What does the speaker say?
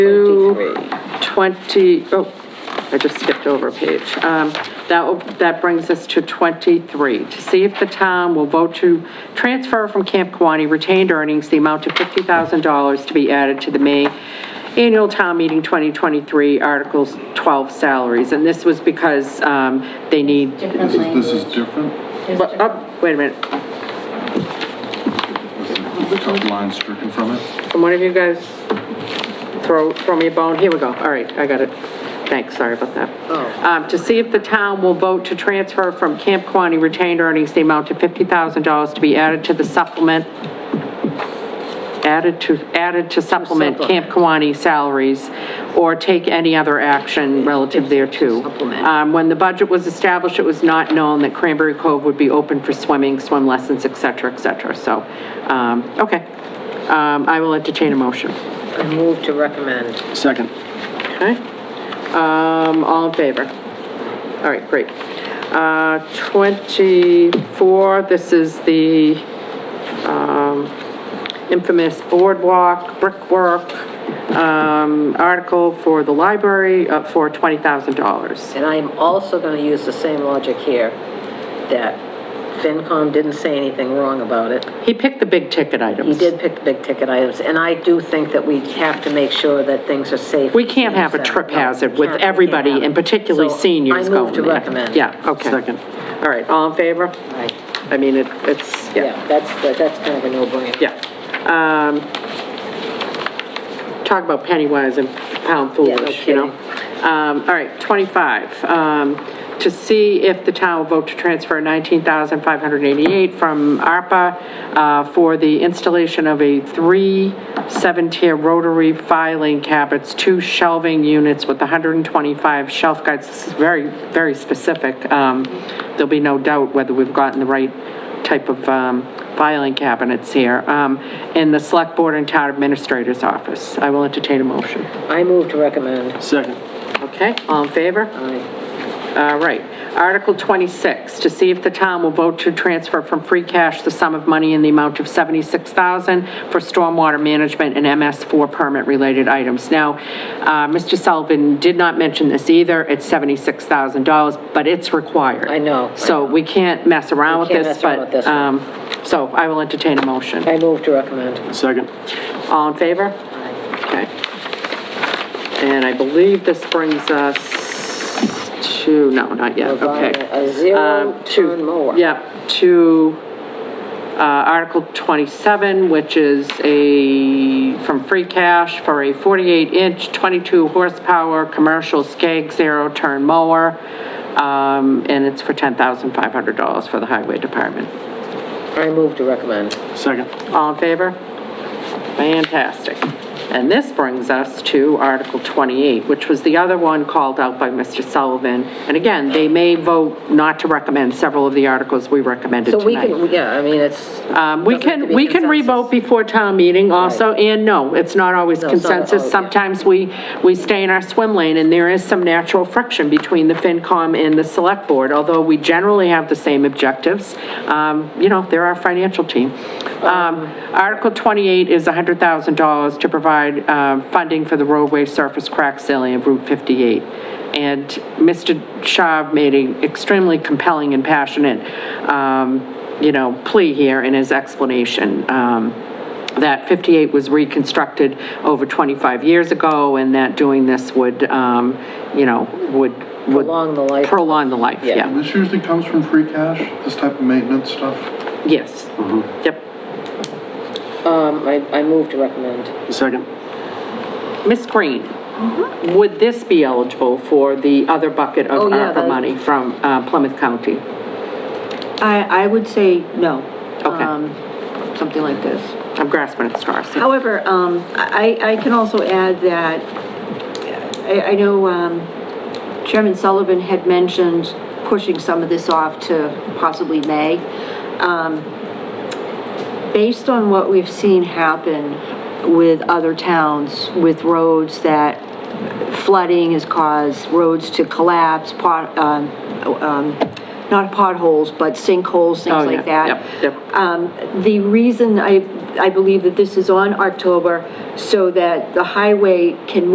20, oh, I just skipped over a page. Um, That, will- that brings us to 23, to see if the town will vote to transfer from Camp Kawani retained earnings the amount of $50,000 to be added to the May annual town meeting 2023 Articles 12 salaries. And this was because um, they need, Different This language. is different? There's But, different- oh, wait a minute, The top line stricken from it? Can one of you guys throw, throw me a bone? Here we go, all right, I got it. Thanks, sorry about that. Um, to see if the town will vote to transfer from Camp Quaney retained earnings the amount of fifty thousand dollars to be added to the supplement, added to, added to supplement Camp Quaney salaries, or take any other action relative thereto. Supplement. Um, when the budget was established, it was not known that Cranberry Cove would be open for swimming, swim lessons, et cetera, et cetera, so, um, okay. Um, I will entertain a motion. I move to recommend. Second. Okay. Um, all in favor? All right, great. Uh, 24, this is the, um, infamous boardwalk, brickwork, um, article for the library, uh, for $20,000. And I am also going to use the same logic here, that FinCom didn't say anything wrong about it. He picked the big ticket items. He did pick the big ticket items, and I do think that we have to make sure that things are safe. We can't have a trip No, we hazard with can't- we can't everybody, have it. and particularly So, seniors going I move to there. recommend. Yeah, okay. Second. All right, all in favor? Right. I mean, it, it's, yeah. Yeah, that's, that- that's kind of a no-brainer. Yeah. Um, Talk about penny wise and pound foolish, you know? Um, All right, 25, um, to see if the town will vote to transfer 19588 from ARPA uh, for the installation of a three seven-tier rotary filing cabinets, two shelving units with 125 shelf guides. This is very, very specific. Um, There'll be no doubt whether we've gotten the right type of um, filing cabinets here, um, in the Select Board and Town Administrator's Office. I will entertain a motion. I move to recommend. Second. Okay, all in favor? Aye. All right. Article 26, to see if the town will vote to transfer from free cash the sum of money in the amount of 76000 for stormwater management and MS4 permit-related items. Now, uh, Mr. Sullivan did not mention this either, it's $76,000, but it's required. I know, I So we can't mess around with We can't this, mess around but, with this one. um, so I will entertain a motion. I move to recommend. Second. All in favor? Aye. Okay. And I believe this brings us to, no, not yet, Provide okay. A Um, to- zero-turn mower. Yep, to uh, Article 27, which is a, from free cash for a 48-inch, 22-horsepower, commercial Skag zero-turn mower, um, and it's for $10,500 for the Highway Department. I move to recommend. Second. All in favor? Fantastic. And this brings us to Article 28, which was the other one called out by Mr. Sullivan. And again, they may vote not to recommend several of the articles we recommended So we tonight. can, yeah, I mean, it's. Um, We doesn't have to can, be we can consensus. re-vote before town meeting also, and no, it's not always No, it's not consensus. always. Sometimes we, we stay in our swim lane, and there is some natural friction between the FinCom and the Select Board, although we generally have the same objectives. Um, You know, they're our financial team. Um, Article 28 is $100,000 to provide um, funding for the roadway surface crack ceiling of Route 58. And Mr. Shaw made an extremely compelling and passionate, um, you know, plea here in his explanation. Um, that 58 was reconstructed over 25 years ago, and that doing this would, um, you know, would, would... Prolong the life. Prolong the life, Yeah. yeah. This usually comes from free cash, this type of maintenance stuff? Yes. Yep. Um, I, I move to recommend. Second. Ms. Green, would this be eligible for the other bucket Mm-hmm. Oh, of yeah, ARPA that- money from uh, Plymouth County? I, I would say no. Okay. Um, Something like this. I'm grasping at straws. However, um, I, I can also add that, I, I know, um, Chairman Sullivan had mentioned pushing some of this off to possibly May. Um, Based on what we've seen happen with other towns, with roads that flooding has caused, roads to collapse, pot, um, um, not potholes, but sinkholes, Oh, things like yeah, Yep, that. yep. Um, The reason I, I believe that this is on October, so that the highway can